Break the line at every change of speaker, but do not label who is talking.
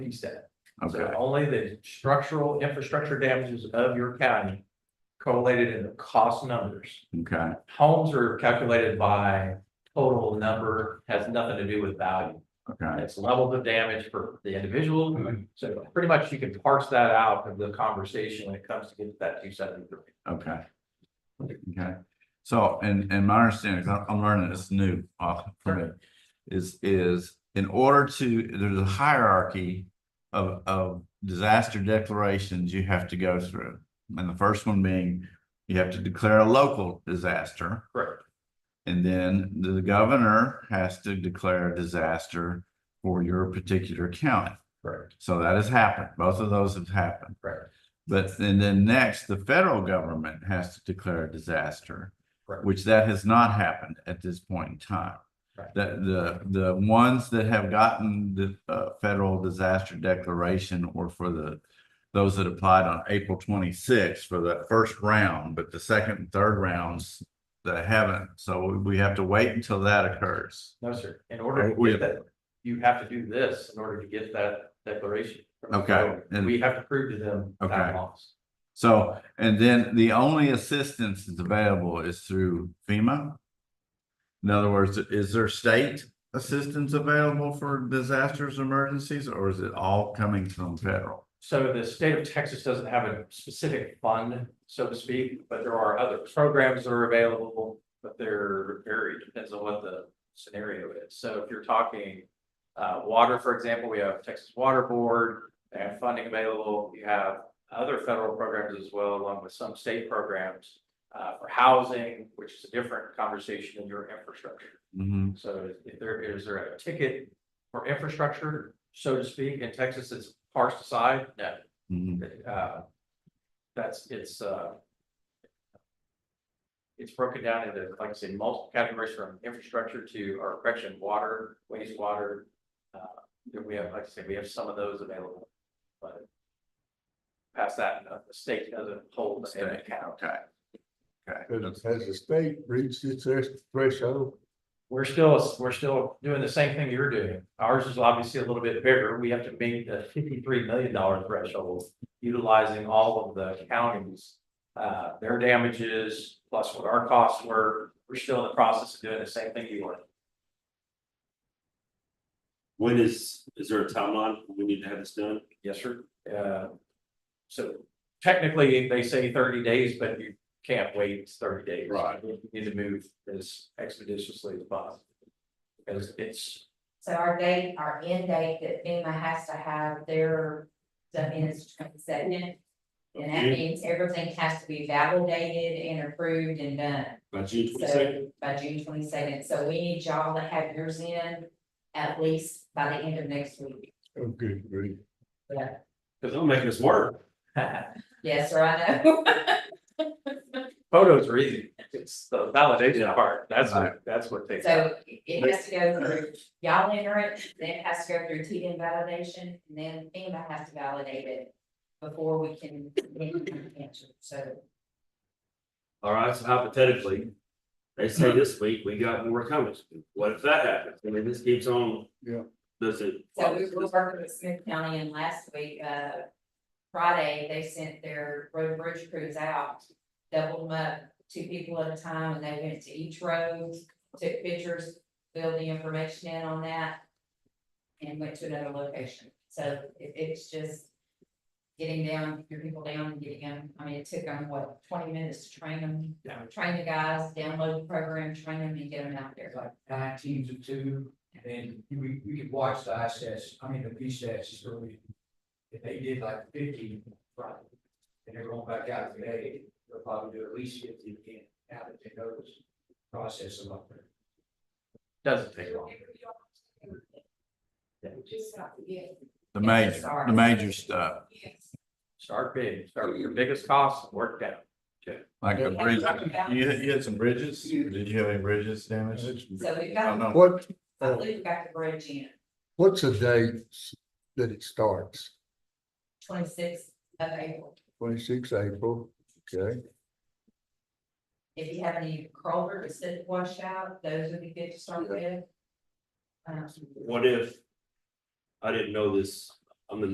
piece that.
Okay,
So only the structural infrastructure damages of your county correlated in the cost numbers.
okay,
Homes are calculated by total number, has nothing to do with value.
okay,
It's levels of damage for the individual.
Mm-hmm.
So pretty much you can parse that out of the conversation when it comes to get to that two seventy-three.
okay. Okay, so, and, and my understanding, 'cause I'm, I'm learning this new off for me, is, is in order to, there's a hierarchy of, of disaster declarations you have to go through. And the first one being, you have to declare a local disaster.
Correct.
And then the governor has to declare a disaster for your particular county.
Correct.
So that has happened. Both of those have happened.
Correct.
But and then next, the federal government has to declare a disaster,
Correct.
which that has not happened at this point in time.
Right.
The the the ones that have gotten the uh federal disaster declaration or for the those that applied on April twenty-sixth for that first round, but the second and third rounds that haven't. So we have to wait until that occurs.
No, sir. In order to
We-
get that, you have to do this in order to get that declaration.
Okay, and-
We have to prove to them
Okay.
that loss.
So, and then the only assistance that's available is through FEMA? In other words, is there state assistance available for disasters, emergencies, or is it all coming from federal?
So the state of Texas doesn't have a specific fund, so to speak, but there are other programs that are available, but they're varied, depends on what the scenario is. So if you're talking uh, water, for example, we have Texas Water Board, they have funding available. You have other federal programs as well, along with some state programs uh, for housing, which is a different conversation than your infrastructure.
Mhm.
So if there, is there a ticket for infrastructure, so to speak, in Texas that's parsed aside? No.
Mhm.
Uh, That's, it's, uh, it's broken down into, like I say, multiple categories from infrastructure to, or correction, water, wastewater. Uh, then We have, like I say, we have some of those available, but past that, uh, the state doesn't hold the head account.
Okay. Okay.
Has, has the state reached its thresh- threshold?
We're still, we're still doing the same thing you're doing. Ours is obviously a little bit bigger. We have to meet the fifty-three million dollar threshold, utilizing all of the counties. Uh, their damages, plus what our costs were, we're still in the process of doing the same thing you were.
When is, is there a timeline when we need to have this done?
Yes, sir. Uh, so technically, they say thirty days, but you can't wait thirty days.
Right.
You need to move as expeditiously as possible. Because it's,
So our date, our end date that FEMA has to have their, the is twenty second. And that
June-
means everything has to be validated and approved and done
By June twenty second?
so by June twenty second, so we need y'all to have yours in at least by the end of next week.
Okay, great.
Yeah,
Cause I'm making this work.
yes, or I know.
Photos are easy, it's the validation part, that's what, that's what they.
So it has to go through, y'all enter it, then it has to go through T validation, and then FEMA has to validate it before we can answer, so.
All right, so hypothetically, they say this week, we got more coming. What if that happens? I mean, this keeps on.
Yeah.
Does it?
So we were working with Smith County and last week, uh, Friday, they sent their road bridge crews out. Doubled them up, two people at a time, and they went to each road, took pictures, filled the information in on that. And went to another location, so it, it's just. Getting down, your people down and getting them, I mean, it took them, what, twenty minutes to train them?
Yeah.
Train the guys, download the program, train them and get them out there.
like nine teams of two, and then you- we, we could watch the ISS, I mean, the PSAS early. If they did like fifty Friday, and they're going back out today, they'll probably do at least fifty again, now that they know this process a lot better.
Doesn't take long.
Just not to get-
The major, the major stuff,
Yes.
Start big, start with your biggest costs, work down.
like the bridge. You, had- you had some bridges? Did you have any bridges damaged?
So we've
Oh,
got,
no.
What,
I believe we've got the bridge in
what's the date that it starts?
twenty-sixth of April.
Twenty-six April, okay?
If you have any culverts that wash out, those would be good to start with. Um,
What if? I didn't know this